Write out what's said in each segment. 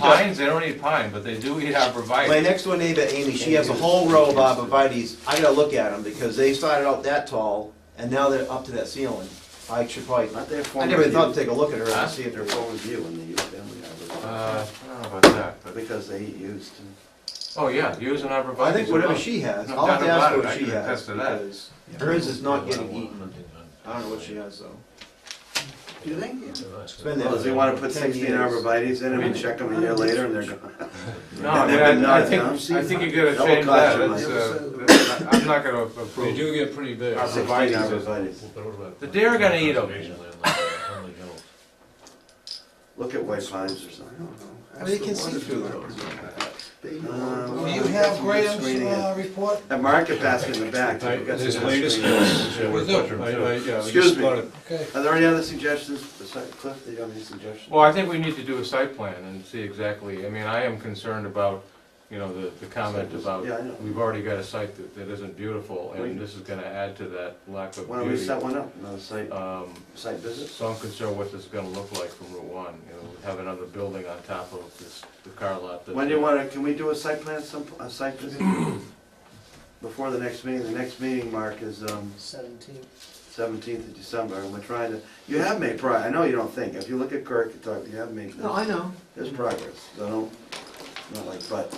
Pines, they don't eat pine, but they do eat My arborvitae. next door neighbor, Amy, she has a whole row of arborvitae's. I gotta look at them because they started out that tall and now they're up to that ceiling. I should probably, Aren't they a form I of never view? thought to take a look at her Huh? and see if They're they're a form of view in the youth family Uh, arborvitae. I don't know about that, but, Because they eat used. oh, yeah, use an arborvitae. I think whatever she has, No I'll have to doubt about ask her it, I what she can has. attest to that. because Hers is not getting eaten. I don't know what she has though. Do they? It's been there Well, does he wanna for put 10 sixteen years. arborvitae's in them and check them a year later and they're gone? No, I They've been mean, I- I nodded think, down. I think you gotta Double change clutch that, them, It's, like- uh, that's- I- I'm not gonna They approve. do get pretty big. Our Sixteen Arborvitae's is- arborvitae's. The deer are gonna eat 'em. Look at white pines or something, I don't know. I mean, you can see through those. Um, Uh, Do you have Graham's Screening it. uh, report? That market basket in the back. I- you've got This some latest. screening. We do. I- I- yeah, we Excuse just me. bought it. Okay. Are there any other suggestions, besides Cliff, do you have any suggestions? Well, I think we need to do a site plan and see exactly, I mean, I am concerned about, you know, the, the comment about, Yeah, I know. we've already got a site that, that isn't beautiful, Wait. and this is gonna add to that lack of Why don't we beauty. set one up, another site, Um, site visit? so I'm concerned what this is gonna look like from Route One, you know, have another building on top of this, the car lot that. When do you wanna, can we do a site plan, some, a site visit? Before the next meeting, the next meeting, Mark, is, um, Seventeen. seventeenth of December, and we're trying to, you have made progress, I know you don't think, if you look at Kirk and talk, you have made, No, I know. there's progress, so don't, not like, but,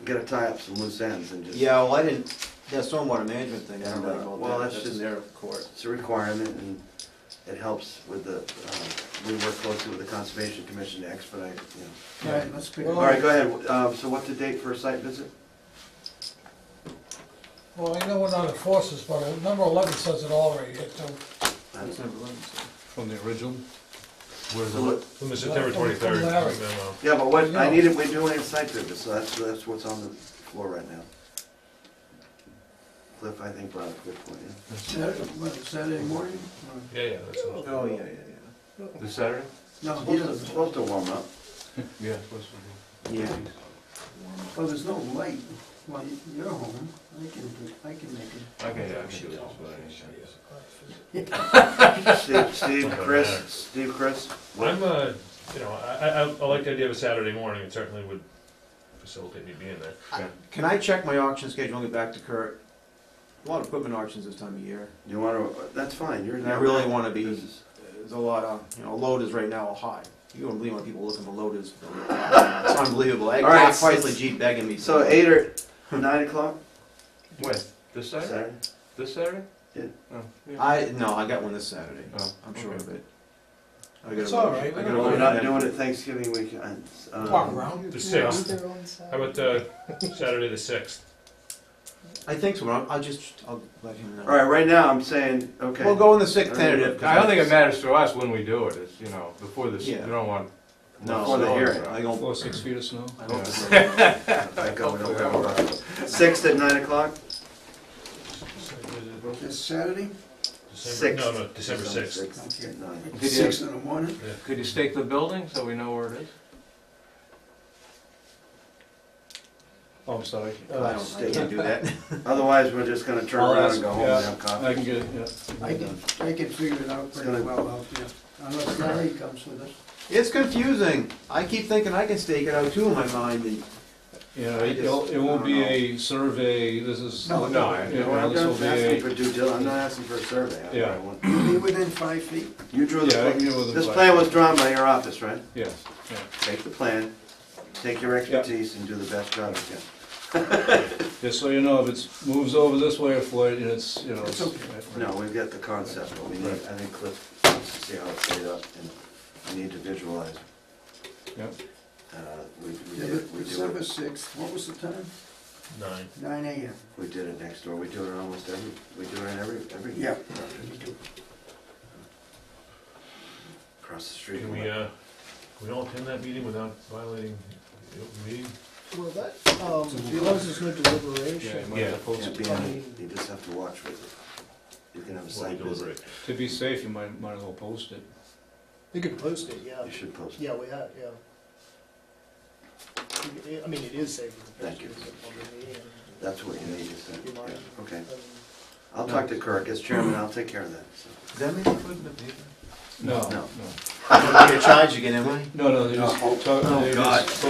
we gotta tie up some loose ends and just. Yeah, well, I didn't, that stormwater management thing, I don't know Yeah, about well, that. that's That's in just- their court. It's a requirement, and it helps with the, uh, we work closely with the Conservation Commission to expedite, you know. All right, let's pick. All right, go ahead, um, so what's the date for a site visit? Well, I know we're not enforcers, but number eleven says it all right here, too. I don't That's know. number one, so. From the original? Where's So what- From the September twenty-third Larry. memo. Yeah, but what, I needed, we're doing a site visit, so that's, that's what's on the floor right now. Cliff, I think, brought up a good point, yeah. Saturday, what, Saturday morning? Yeah, yeah, that's all. Oh, yeah, yeah, yeah. This Saturday? No, he Supposed to- doesn't. Supposed to warm up. Yeah. Yeah. Oh, there's no light. Well, you're home. I can, I can make it. Okay, yeah, I can do this, but I ain't- Steve, Steve, Doesn't Chris, matter. Steve, Chris, I'm, uh, you know, I, I, I like the idea of a Saturday morning, it certainly would facilitate me being there. Can I check my auction schedule and get back to Kurt? A lot of equipment auctions this time of year. you wanna, that's fine, you're. And I really wanna be, This is- there's a lot of, you know, loaders right now are high. You wouldn't believe what people looking for loaders. It's unbelievable. I All right, got so- Chrysler Jeep begging me. So eight or nine o'clock, When? This Saturday? Saturday? This Saturday? Yeah. Oh, yeah. I, no, I got one this Saturday. Oh, I'm sure okay. of it. I got a It's all motion. right, I we got a don't- We're motion. not doing it Thanksgiving weekend. um, Walk around. The sixth, how about, uh, Saturday the sixth? I think so, but I'll- I'll just, I'll let him know. All right, right now, I'm saying, okay. We'll go in the sixth All right. tentative. I don't think it matters to us when we do it, it's, you know, before this, we Yeah. don't want. No. Before the hearing. I don't, Four, six feet of snow? I don't. I go, no, go, go. Sixth at nine o'clock? It's Saturday, December- No, no, December December sixth. Sixth at nine. you- six in the morning. Could you stake the building so we know where it is? Oh, I'm sorry. I don't, I can't do that. Otherwise, we're just gonna turn I'll around ask, and go home yeah. and have I coffee. can get it, yeah. I can, I can figure it out It's pretty gonna- well out there, unless Larry comes with us. It's confusing. I keep thinking I can stake it out too in my mind and Yeah, it'll- it won't be a survey, this is. No, no, I- Yeah, You know, I'm this will not be asking a- for due dil, I'm not asking for a survey. I- Yeah. I want- Be within five feet. You drew Yeah, I can the, get with the this black. plan was drawn by your office, right? Yes, yeah. Take the plan, take your expertise and do the best job you can. Just so you know, if it's, moves over this way or flight, and it's, you know. It's No, we've got the concept, but we need, I think Cliff wants to see how it's laid up and we need to visualize. Yeah. Uh, we, we did, it- we do December it, sixth, what was the time? Nine. Nine AM. we did it next door, we do it almost every, we do it in every, every. Yeah. Across the street. Can we, uh, can we all attend that meeting without violating the open meeting? Well, that, um, is no deliberation. Yeah, Yeah. Can't be on it. you just have to watch with it. You can have While a we site visit, deliberate. to be safe, you might, might as well post it. You could post it, yeah. you should post it. Yeah, we have, yeah. You- I mean, it is safe. with the Thank you. pictures of the meeting. That's what you need to say. You mind? Yeah, Okay, Um, I'll talk to Kirk, as chairman, I'll take care of that, so. Does that make it good in the paper? No, No. no. I'm gonna charge again, am I? Oh, No, no, they just, talk- they just